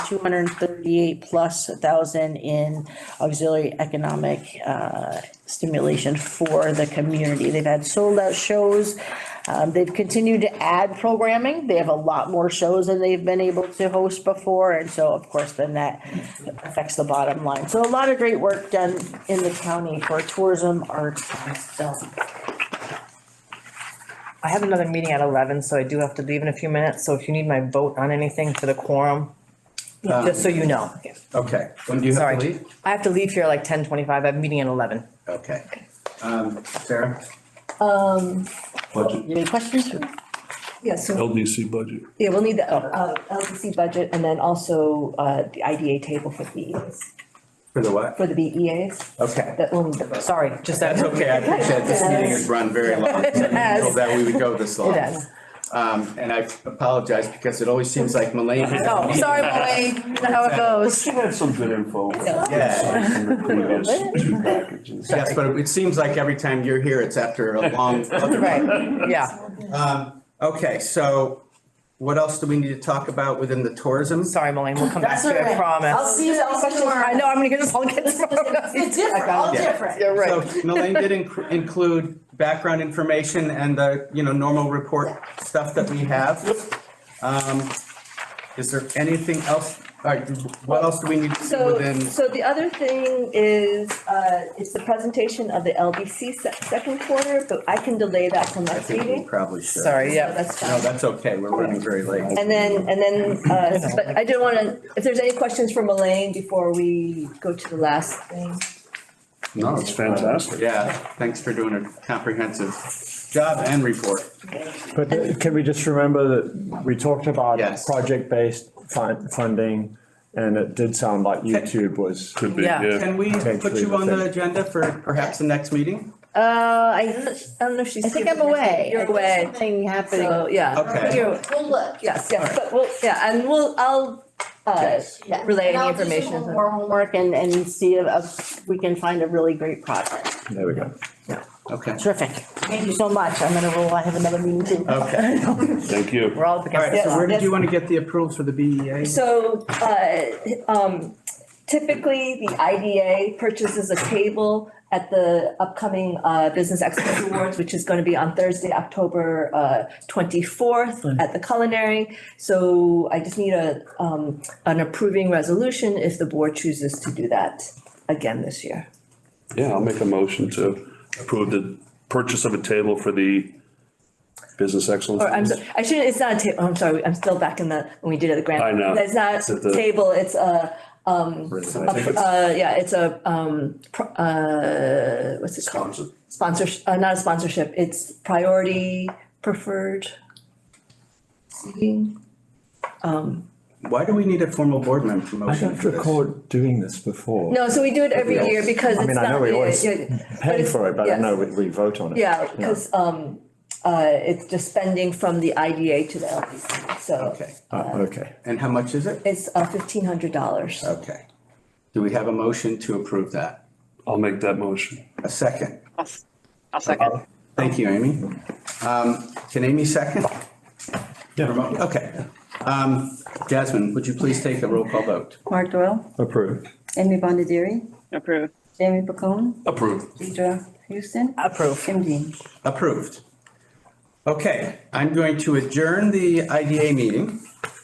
two hundred and thirty-eight plus a thousand in auxiliary economic uh, stimulation for the community. They've had sold-out shows. Um, They've continued to add programming. They have a lot more shows than they've been able to host before. And so, of course, then that affects the bottom line. So a lot of great work done in the county for tourism, arts, and film. I have another meeting at eleven, so I do have to leave in a few minutes, so if you need my vote on anything for the quorum, just so you know. Okay, When do you Sorry. have to leave? I have to leave here like ten twenty-five, I have a meeting at eleven. okay. Um, Sarah? Budget, Any questions? for me? Yeah, so, LDC budget. yeah, we'll need the, uh, LDC budget and then also, uh, the IDA table for BEAs, For the what? for the BEAs, Okay. that we'll need the. Sorry, just that. That's okay, I appreciate this meeting has run very long, so I didn't know that we would go this long. It does. Um, and I apologize because it always seems like Malane. Oh, sorry, Molly, how it goes. she had some good info. Yeah. Yeah. Yes, but it seems like every time you're here, it's after a long. Right, yeah, Um, okay, so what else do we need to talk about within the tourism? sorry, Malane, we'll come back That's to it, I all right. promise. I'll see you all I tomorrow. know, I'm gonna get this all get tomorrow. It's different, all different. You're So right. Malane did inc- include background information and the, you know, normal report stuff that we have. Um, is there anything else, all right, what else do we need to do So, within? so the other thing is, uh, it's the presentation of the LDC se- second quarter, but I can delay that till I next think we meeting. probably should. Sorry, So yeah, That's No, fine. that's okay, we're running very late. And then, and then, uh, but I did wanna, if there's any questions for Elaine before we go to the last thing. No, That's fantastic. Yeah, thanks for doing a comprehensive job and report. But can we just remember that we talked about Yes. project-based fun- funding, and it did sound like YouTube was. Could be, Yeah. yeah. Can we put you on the agenda for perhaps the next meeting? Uh, I don't know if she's. I think I'm away. You're away. Something happening. So, yeah. Okay. You're- We'll look. Yes, yes, but we'll, yeah, and we'll, I'll, uh, Yeah. relay And any I'll do some information. More homework and, and see if- if we can find a really great project. There we go. Okay, Terrific. Thank you so much. I'm gonna roll. I have another meeting too. okay. Thank you. we're all up Uh, All against right, it. so where did you want to get the approvals for the E BEA? So, uh, um, typically, the IDA purchases a table at the upcoming, uh, Business Excellence Awards, which is gonna be on Thursday, October, uh, twenty-fourth at the Culinary. So I just need a, um, an approving resolution if the board chooses to do that again this year. Yeah, I'll make a motion to approve the purchase of a table for the business excellence. Or I'm, so- I shouldn't, it's not a table, I'm sorry, I'm still back in the, when we did it at the grand. I know. It's not It's at the- table, it's a, I think it's uh, yeah, it's a, um, pro- uh, what's it called? Sponsored. Sponsorship, uh, not a sponsorship, it's priority preferred. seating. Why do we need a formal board member I motion don't for this? recall doing this before. No, so we do it every Yeah. year because I it's mean, I know not, we yeah, always yeah, but Pay it's- for it, but I yes. know we, we vote on it. Yeah, because, um, uh, it's just spending from the IDA to the LDC, so Okay, Ah, okay. and how much is it? it's, uh, fifteen hundred dollars. Okay. Do we have a motion to approve that? I'll make that motion. A second. I'll s- I'll second. Thank you, Amy. Um, Can Amy second? Remote- Okay. Um, Jasmine, would you please take a roll call vote? Mark Doyle, Approved. Amy Bondieri, Approve. Jamie Bacone, Approved. Deidre Houston, Approve. Kim Dean. Approved. Okay, I'm going to adjourn the IDA meeting.